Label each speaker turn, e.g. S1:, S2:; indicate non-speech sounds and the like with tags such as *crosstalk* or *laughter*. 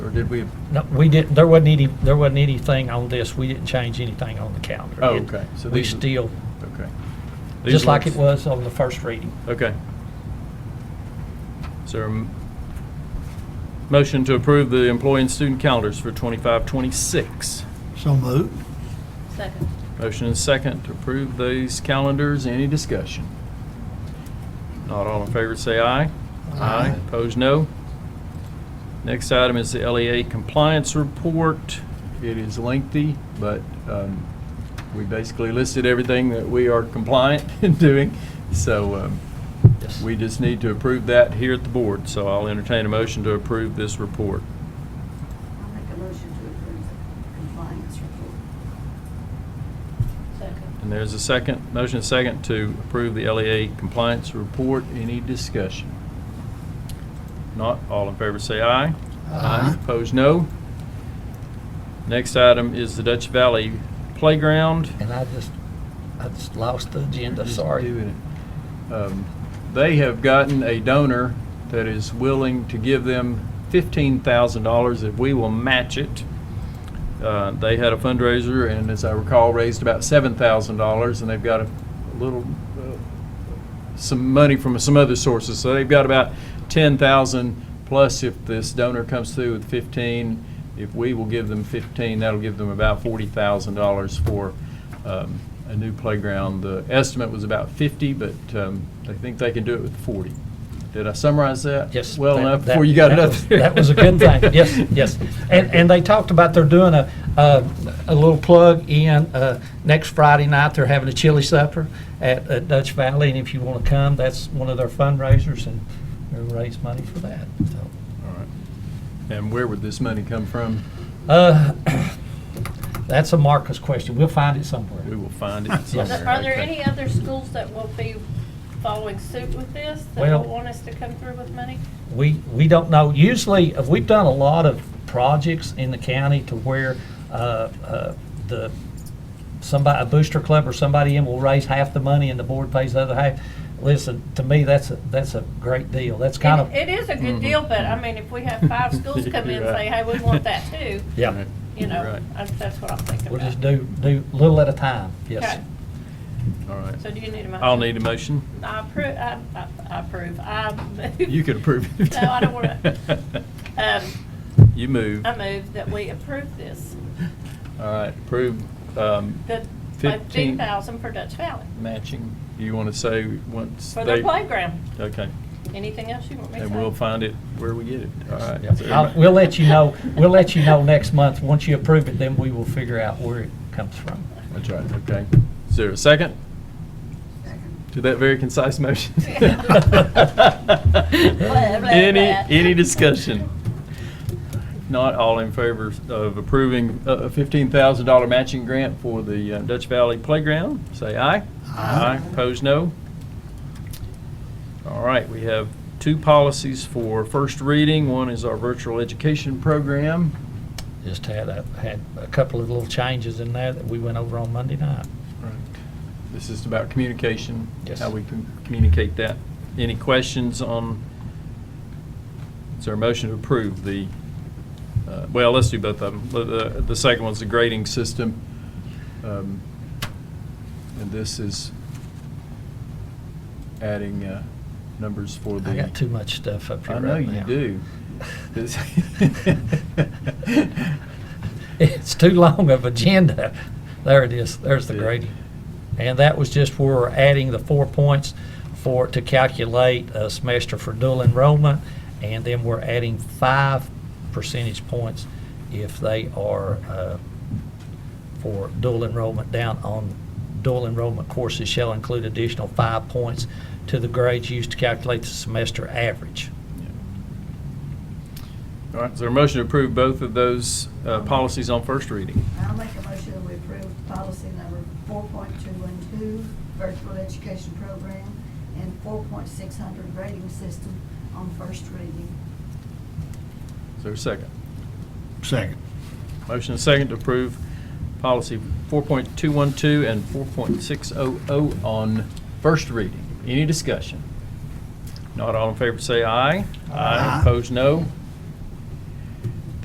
S1: did we?
S2: No, we didn't, there wasn't any, there wasn't anything on this, we didn't change anything on the calendar.
S1: Oh,
S2: It-
S1: okay. So
S2: We
S1: these-
S2: still,
S1: Okay. These
S2: just like it
S1: ones-
S2: was on the first reading.
S1: Okay. Is there a m- motion to approve the employee and student calendars for 25, 26?
S3: So moved.
S4: Second.
S1: Motion and second to approve these calendars. Any discussion? Not all in favor, say aye.
S3: Aye.
S1: Opposed, no. Next item is the LEA compliance report. It is lengthy, but um, we basically listed everything that we are compliant *laughs* in doing. So um,
S2: Yes.
S1: we just need to approve that here at the board. So I'll entertain a motion to approve this report.
S5: I'll make a motion to approve the compliance report.
S4: Second.
S1: And there's a second, motion and second to approve the LEA compliance report. Any discussion? Not, all in favor say aye.
S3: Aye.
S1: Opposed, no. Next item is the Dutch Valley Playground.
S2: And I just, I just lost the agenda,
S1: Just
S2: sorry.
S1: doing it. Um, They have gotten a donor that is willing to give them $15,000 if we will match it. Uh, They had a fundraiser and, as I recall, raised about $7,000, and they've got a little, uh, some money from some other sources. So they've got about 10,000 plus if this donor comes through with 15. If we will give them 15, that'll give them about $40,000 for um, a new playground. The estimate was about 50, but um, they think they can do it with 40. Did I summarize that?
S2: Yes.
S1: Well
S2: that-
S1: enough
S2: that-
S1: before you got
S2: that
S1: it up
S2: was-
S1: there?
S2: That was a
S1: *laughs*
S2: good thing, yes, yes. And, and they talked about they're doing a, a, a little plug in, uh, next Friday night, they're having a chili supper at, at Dutch Valley, and if you want to come, that's one of their fundraisers, and they'll raise money for that, so.
S1: All right. And where would this money come from?
S2: Uh, *clears throat* That's a Marcus question. We'll find it
S1: We
S2: somewhere.
S1: will find it
S2: *laughs* Yes.
S1: somewhere.
S4: Are there
S1: Okay.
S4: any other schools that will be following suit with this, that
S2: Well-
S4: will want us to come through with money?
S2: We, we don't know. Usually, uh, we've done a lot of projects in the county to where uh, uh, the, somebody, a booster club or somebody in will raise half the money and the board pays the other half. Listen, to me, that's, a that's a great deal. That's kind of,
S4: It it is a good
S1: Mhm.
S4: deal, but I mean, if we have five schools
S2: *laughs*
S4: come in and say, hey, we want that too,
S2: yeah,
S4: you know,
S1: Right.
S4: I- that's what I'm thinking about.
S2: we'll just do, do little at a time, yes.
S4: Okay,
S1: All right.
S4: so do you need a motion?
S1: I'll need a motion.
S4: I approve, I, I- I approve, I. move-
S1: You can approve it.
S4: No, I
S1: *laughs*
S4: don't wanna, um,
S1: You move.
S4: I
S1: All
S4: move that we approve this,
S1: right, approve, um,
S4: the uh,
S1: Fifteen.
S4: fifteen thousand for Dutch Valley,
S1: matching. You want to say once they?
S4: for their playground.
S1: Okay,
S4: Anything else you want me to say?
S1: and we'll find it where we get it. All right.
S2: Yeah. I'll- We'll let you know, we'll let you know next month. Once you approve it, then we will figure out where it comes from.
S1: That's right, okay. Is there a second
S5: Second.
S1: to that very concise motion?
S4: blah, blah.
S1: Any, any discussion? Not all in favor of approving a a $15,000 matching grant for the uh, Dutch Valley Playground, say aye. Aye. Opposed, no. All right, we have two policies for first reading. One is our virtual education program.
S2: Just had a, had a couple of little changes in there that we went over on Monday night.
S1: This is about communication,
S2: Yes.
S1: how we can communicate that. Any questions on, is there a motion to approve the, uh, well, let's do both of them. The- The the second one's the grading system. Um, And this is adding uh, numbers for the.
S2: I got too much stuff up here
S1: I know
S2: right
S1: you
S2: now.
S1: do. This-
S2: *laughs* It's too long of agenda. There it is, there's the
S1: Yeah.
S2: grading. And that was just where we're adding the four points for, to calculate a semester for dual enrollment. And then we're adding five percentage points if they are, uh, for dual enrollment down on dual enrollment courses shall include additional five points to the grades used to calculate the semester average.
S1: All right, is there a motion to approve both of those uh, policies on first reading?
S5: I'll make a motion that we approve policy number four point two one two, virtual education program, and four point six hundred rating system on first reading.
S1: Is there a second?
S3: Second.
S1: Motion and second to approve policy 4.212 and 4.600 on first reading. Any discussion? Not all in favor, say aye.
S3: Aye.
S1: Opposed, no.